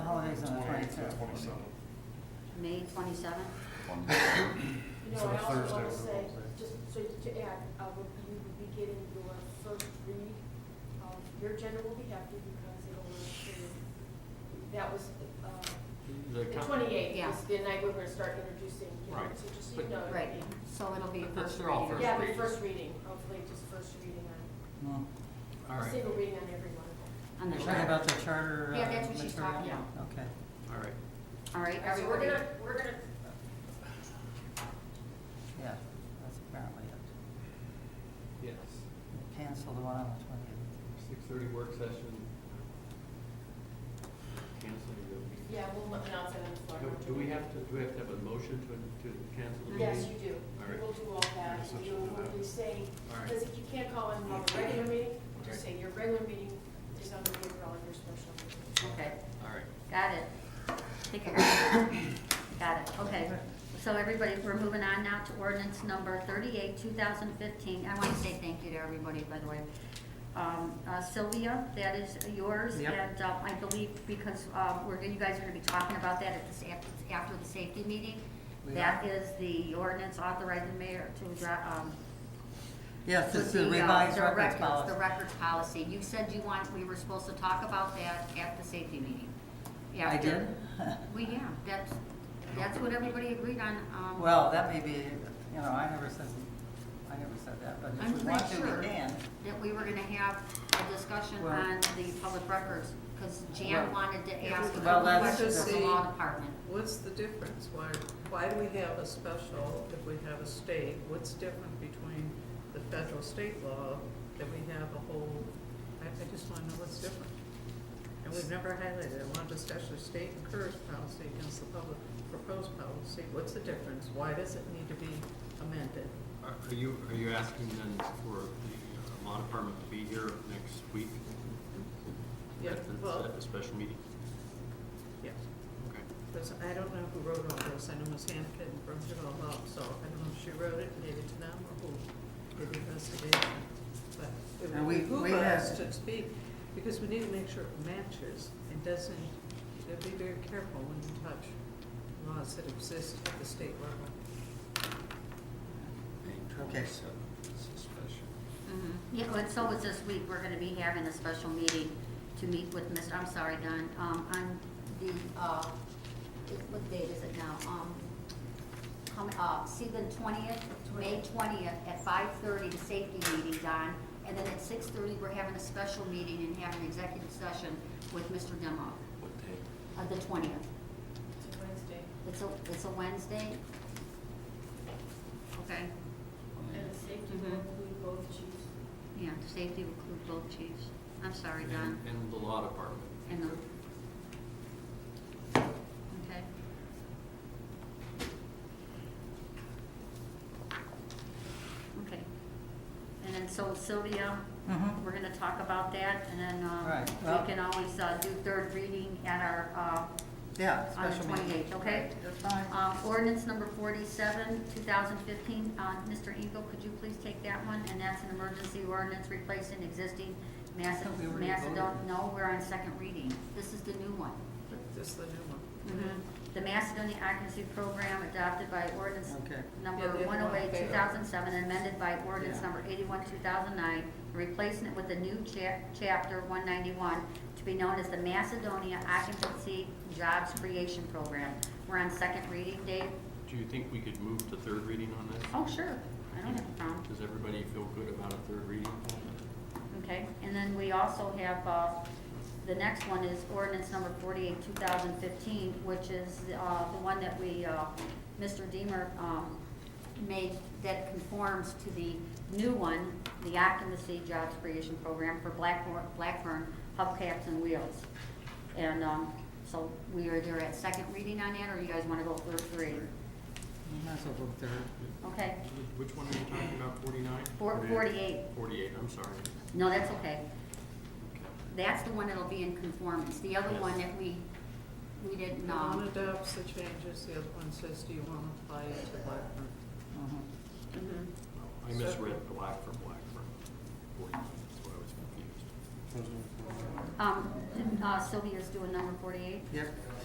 May twenty-seventh? You So know, I it's also Thursday, we're want to say, gonna say. just so to add, uh, would you would be getting your first read, um, your agenda will be hefty because it'll, uh, that was, uh, The the com- twenty-eighth Yeah. is the night we're gonna start introducing, you know, Right. so just, so you But- know. it'll Right, be- so it'll be But first they're all reading. first Yeah, reading. but first reading, hopefully just first reading on, All right, single reading on every one of them. On the You're chart. talking about the charter uh, material? Yeah, that's what she's talking Okay. all right. All right, So we're everybody, gonna, we're gonna, Yeah, that's apparently it. Yes. Cancel the one on the twenty-eighth. Six thirty work session. Cancel the. yeah, we'll announce it on the floor. Do- Do we have to, do we have to have a motion to, to cancel the meeting? Yes, you do. All right. We'll do all All that, right, so check it you'll out. probably say, All right. because if you can't call in on a regular meeting, just Okay. say your regular meeting is under the umbrella of your special meeting. okay, All right. got it. Take it. Got it, okay. So everybody, we're moving on now to ordinance number thirty-eight, two thousand fifteen. I want to say thank you to everybody, by the way. Um, uh, Sylvia, that is yours, Yep. and uh, I believe because um, we're, you guys are gonna be talking about that at this, after, after the safety meeting. We That are. is the ordinance authorizing the mayor to, dra- um, Yes, with it's the uh, revised the records The policy. records policy. You said you want, we were supposed to talk about that at the safety meeting. I After- did? We, yeah, that's, that's what everybody agreed on, um. Well, that may be, you know, I never said, I never said that, but I'm if we want to, pretty sure we can. that we were gonna have a discussion Well- on the public records, because Jan Well- wanted to ask a Well, couple that's- questions of the law See- department. What's the difference? Why, why do we have a special if we have a state? What's different between the federal state law that we have a whole, I, I just wanna know what's different. And we've never highlighted it. I want to discuss the state encouraged policy against the public proposed policy. What's the difference? Why does it need to be amended? Are are you, are you asking then for the uh, law department to be here next week? Yeah, At the- well- At the special meeting? Yes. Okay. Because I don't know who wrote all this. I know Ms. Hannigan brings it all up, so I don't know if she wrote it, and gave it to them, or who did the investigation. But it And we- would behoove we us had- to speak, because we need to make sure it matches and doesn't, you know, be very careful when you touch laws that exist at the state level. Okay. Mhm. Yeah, well, so it's this week, we're gonna be having a special meeting to meet with Mr., I'm sorry, Don, um, on the, uh, what date is it now? Um, come, uh, see the twentieth, May twentieth, at five thirty, the safety meeting, Don. And then at six thirty, we're having a special meeting and having an executive session with Mr. Demoff, What day? uh, the twentieth. It's Wednesday, It's a, it's a Wednesday? Okay, and the safety Mhm. will include both chiefs. yeah, safety will include both chiefs. I'm sorry, Don. And, and the law department. And the. Okay. Okay. And then so Sylvia, Mhm. we're gonna talk about that and then, um, Right, well- we can always, uh, do third reading at our, Yeah, uh, on the special meeting. twenty-eighth, okay? Right, That's fine. Um, ordinance number forty-seven, two thousand fifteen, uh, Mr. Eagle, could you please take that one? And that's an emergency ordinance replacing existing thought we Macedon, already voted. Macedon, no, we're on second reading. This is the new one. This is the new one. Mm-hmm. The Macedonia Occupancy Program adopted by ordinance Okay. number Yeah, the other one one oh eight, failed. two thousand seven, amended by ordinance Yeah. number eighty-one, two thousand nine, replacing it with a new chap- chapter one ninety-one to be known as the Macedonia Occupancy Jobs Creation Program. We're on second reading, Dave? Do you think we could move to third reading on this? Oh, sure, I don't have a problem. Does everybody feel good about a third reading? Okay, and then we also have, uh, the next one is ordinance number forty-eight, two thousand fifteen, which is, uh, the one that we, uh, Mr. Deemer, um, made that conforms to the new one, the occupancy jobs creation program for Blackburn, Blackburn hubcaps and wheels. And, um, so we are either at second reading on that, or you guys wanna go first reading? We might as well go with the- Okay, Which one are you talking about, forty-nine? Four- 48. Forty-eight, I'm sorry. no, that's okay. That's the one that'll be in conformance, the other one that we, we didn't, The one um, adopts the changes, the other one says, do you want to apply it to Blackburn? Mhm. mhm. I misread black for black for forty-nine, that's why I was confused. Um, uh, Sylvia's doing number forty-eight. Yep.